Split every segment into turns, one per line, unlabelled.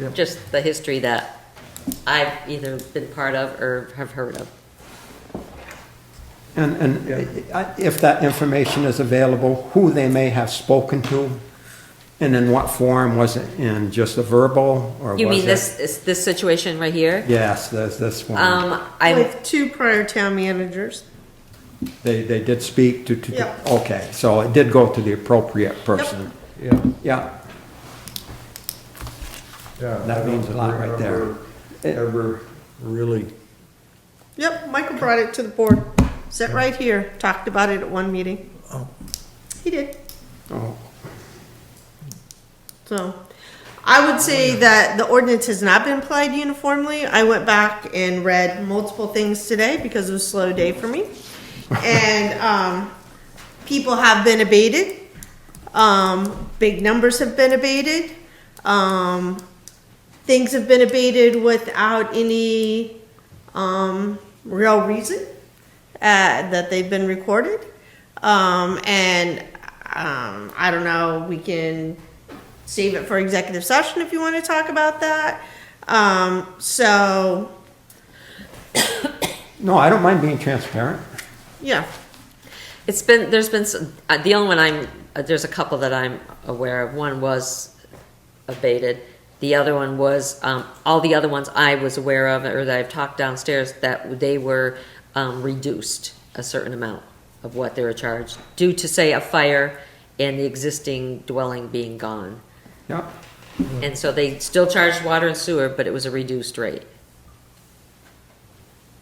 Yep.
just the history that I've either been part of or have heard of.
And, and I- if that information is available, who they may have spoken to, and in what form, was it in just a verbal, or was it?
You mean this, is this situation right here?
Yes, there's this one.
Um, I'm,
With two prior town managers.
They, they did speak to, to,
Yep.
okay, so it did go to the appropriate person.
Yeah,
Yeah,
yeah.
That means a lot right there.
there. Ever really,
Yep, Michael brought it to the board. Sat right here, talked about it at one meeting.
Oh.
He did.
oh,
So, I would say that the ordinance has not been applied uniformly. I went back and read multiple things today because it was a slow day for me. And, um, people have been abated. Um, big numbers have been abated. Um, things have been abated without any, um, real reason, uh, that they've been recorded. Um, and, um, I don't know, we can save it for executive session if you want to talk about that. Um, so,
no, I don't mind being transparent.
yeah,
it's been, there's been, some- uh, the only one I'm, uh, there's a couple that I'm aware of. One was abated. The other one was, um, all the other ones I was aware of or that I've talked downstairs, that they were, um, reduced a certain amount of what they were charged due to, say, a fire and the existing dwelling being gone.
Yeah,
And so they still charged water and sewer, but it was a reduced rate.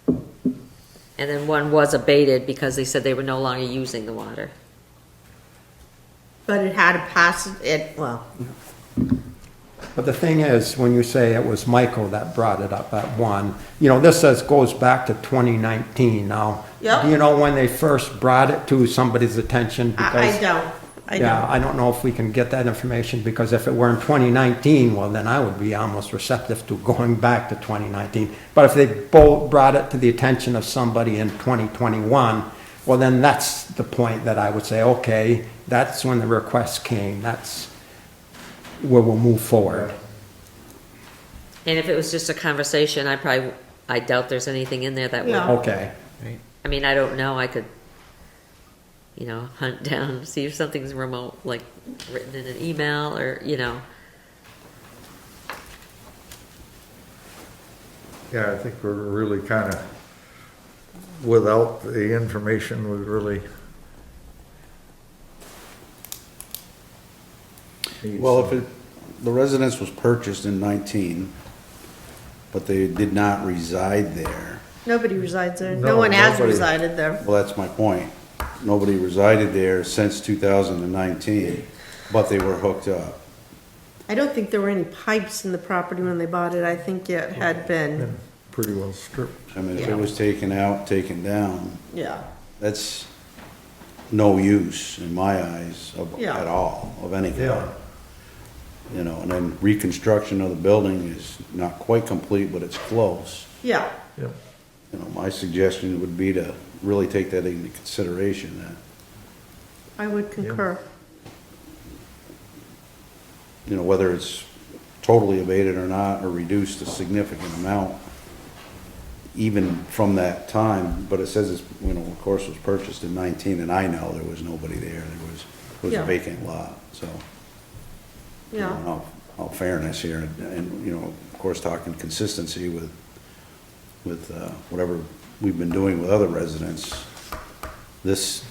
And then one was abated because they said they were no longer using the water.
but it had to pass it, well,
but the thing is, when you say it was Michael that brought it up, that one, you know, this says goes back to 2019 now.
Yep.
Do you know when they first brought it to somebody's attention?
I,
Because
I don't, I
Yeah,
don't.
I don't know if we can get that information, because if it were in 2019, well, then I would be almost receptive to going back to 2019. But if they both brought it to the attention of somebody in 2021, well, then that's the point that I would say, okay, that's when the request came, that's where we'll move forward.
And if it was just a conversation, I probably, I doubt there's anything in there that would,
No.
Okay,
I mean, I don't know, I could, you know, hunt down, see if something's remote, like written in an email or, you know.
yeah, I think we're really kind of, without the information, we really. need
Well,
some-
if it, the residence was purchased in nineteen, but they did not reside there,
Nobody resides there. No
No,
one has
nobody.
resided there.
well, that's my point. Nobody resided there since two thousand and nineteen, but they were hooked up.
I don't think there were any pipes in the property when they bought it. I think it had been,
been Pretty well stripped.
I mean, if
Yeah.
it was taken out, taken down,
yeah.
that's no use in my eyes of,
Yeah.
at all, of any
Yeah.
kind. You know, and then reconstruction of the building is not quite complete, but it's close.
Yeah,
Yep.
You know, my suggestion would be to really take that into consideration, that,
I would concur.
you know, whether it's totally abated or not, or reduced a significant amount, even from that time, but it says it's, you know, of course, it was purchased in nineteen, and I know there was nobody there, there was, it was
Yeah.
a vacant lot, so. you know, in
Yeah,
all- All fairness here, and- and, you know, of course, talking consistency with, with uh, whatever we've been doing with other residents, this,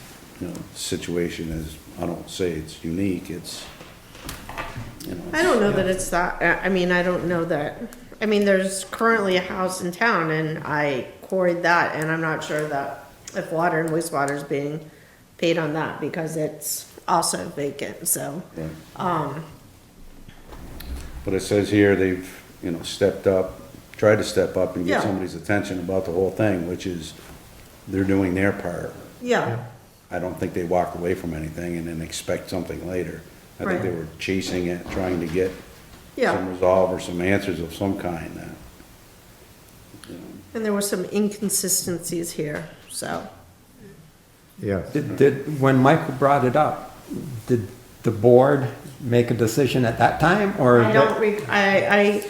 you know, situation is, I don't say it's unique, it's, you know.
I don't know that it's that, uh, I I mean, I don't know that. I mean, there's currently a house in town and I quarried that and I'm not sure that if water and wastewater is being paid on that because it's also vacant, so.
Right.
Um,
But it says here they've, you know, stepped up, tried to step up and
Yeah.
get somebody's attention about the whole thing, which is they're doing their part.
Yeah,
I don't think they walked away from anything and then expect something later. I think they
Right.
were chasing it, trying to get some
yeah.
resolve or some answers of some kind. uh,
And there were some inconsistencies here, so.
Yeah.
did, did, when Michael brought it up, did the board make a decision at that time, or?
I don't, re- I, I